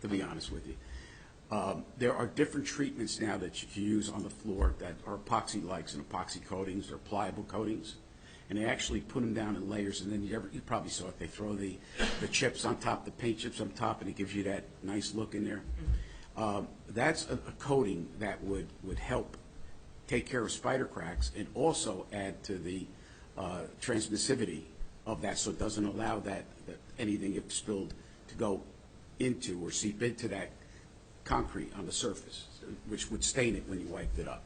to be honest with you. Um, There are different treatments now that you can use on the floor that are epoxy-likes and epoxy coatings, they're pliable coatings, and they actually put them down in layers, and then you ever, you probably saw it, they throw the, the chips on top, the paint chips on top, and it gives you that nice look in there. Um, That's a a coating that would, would help take care of spider cracks and also add to the uh, transmissivity of that, so it doesn't allow that, that anything if spilled to go into or seep into that concrete on the surface, which would stain it when you wiped it up.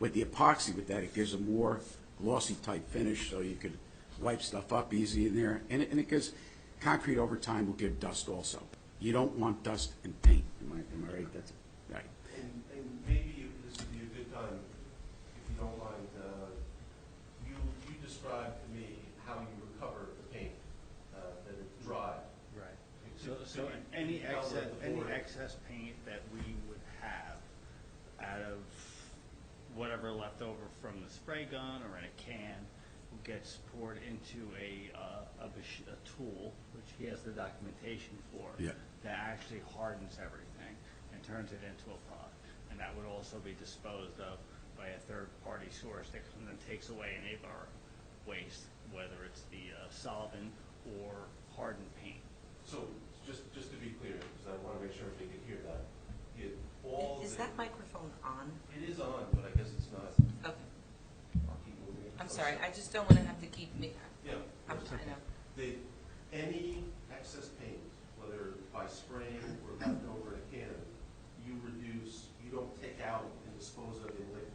With the epoxy with that, it gives a more glossy type finish, so you could wipe stuff up easy in there. And it, and it gives, concrete over time will give dust also. You don't want dust and paint, am I, am I right? That's, right. And, and maybe it- this would be a good time, if you don't mind, uh, you, you described to me how you recover the paint, uh, that it dried. Right. So, so any Outlet excess, the any board. excess paint that we would have out of whatever left over from the spray gun or in a can gets poured into a, uh, a mach- a tool, which he has the documentation for. Yeah. That actually hardens everything and turns it into a product. And that would also be disposed of by a third-party source that comes and takes away any of our waste, whether it's the uh, solvent or hardened paint. So, just, just to be clear, because I want to make sure if they could hear that, it, all Is the, that microphone on? it is on, but I guess it's not. Okay, I'll keep moving it. I'm sorry, I just don't want to have to keep me, Yeah. I'm, it's I okay. know. They, any excess paint, whether by spraying or left over in a can, you reduce, you don't take out and dispose of in liquid.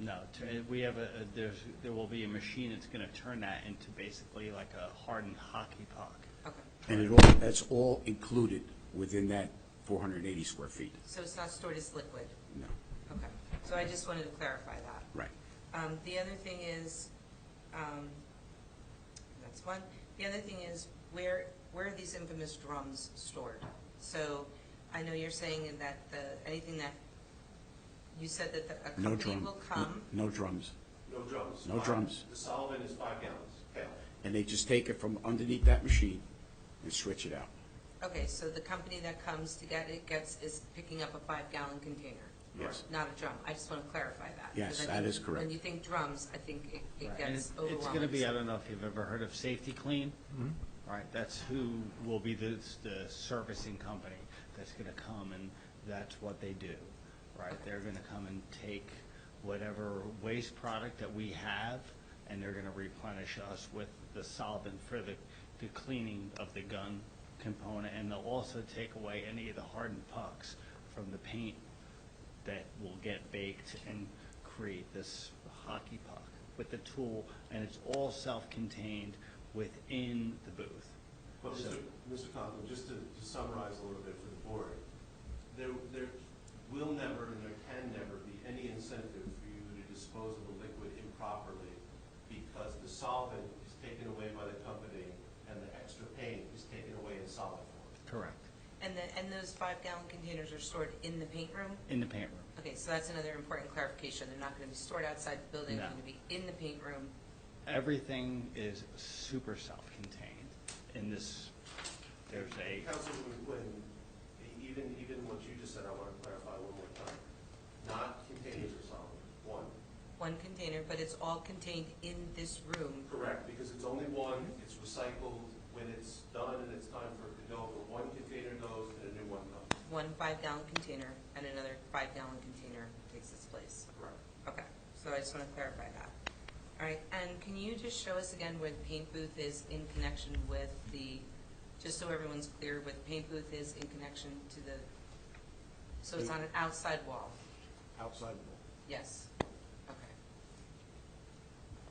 No, t- uh, we have a, a- there's, there will be a machine that's gonna turn that into basically like a hardened hockey puck. Okay, And it all, that's all included within that 480 square feet. so it's not stored as liquid? No, Okay, so I just wanted to clarify that. right. Um, The other thing is, um, that's one, the other thing is, where, where are these infamous drums stored? So I know you're saying that the, anything that, you said that the- a No company drum. Mm. will come, No no drums. No drums. No Five. drums. The solvent is five gallons, Okay. And they just take it from underneath that machine and switch it out. okay, so the company that comes to get it gets, is picking up a five-gallon container? Yes. not a drum. I just want to clarify that. Yes, because I that think is correct. When you think drums, I think it- it And gets it's- overwhelming. It's gonna be, I don't know if you've ever heard of Safety Clean? All right, that's who will be the, the servicing company that's gonna come and that's what they do. Right, they're gonna come and take whatever waste product that we have and they're gonna replenish us with the solvent for the, the cleaning of the gun component. And they'll also take away any of the hardened pucks from the paint that will get baked and create this hockey puck with the tool, and it's all self-contained within the booth. But So- Mr. Mr. Conklin, just to to summarize a little bit for the board, there, there will never and there can never be any incentive for you to dispose of a liquid improperly because the solvent is taken away by the company and the extra paint is taken away in solid form. Correct, And the, and those five-gallon containers are stored in the paint room? in the paint room. Okay, so that's another important clarification. They're not going to be stored outside the building. They're No. going to be in the paint room. Everything is super self-contained in this, there's a, Councilwoman Quinn, even, even what you just said, I want to clarify one more time. Not containers or solvent, one. One container, but it's all contained in this room. Correct, because it's only one, it's recycled, when it's done and it's time for it to go, but one container goes and a new one comes. One five-gallon container and another five-gallon container takes its place. Correct. Okay, so I just want to clarify that. All right, and can you just show us again where the paint booth is in connection with the, just so everyone's clear, where the paint booth is in connection to the, so it's on an outside wall? Outside Yes, okay.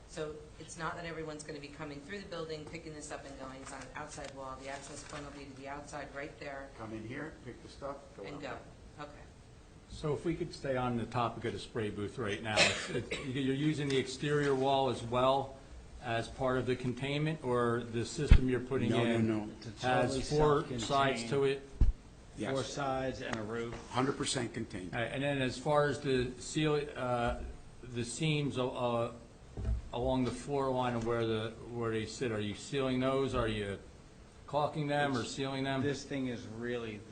So it's not that everyone's going to be coming through the building, picking this up and going, it's on an outside wall, the access point will be to the outside right there Come in here, pick the stuff, go and out. go, okay. So if we could stay on the topic of the spray booth right now, it's- it's- you're using the exterior wall as well as part of the containment, or the system you're putting No, no, in? no. It's totally Has four sides self-contained. to it? four Yes, sides and a roof. 100% contained. All right, And then as far as the seal, uh, the seams uh, along the floor line of where the, where they sit, are you sealing those? Are you caulking them or sealing them? This thing is really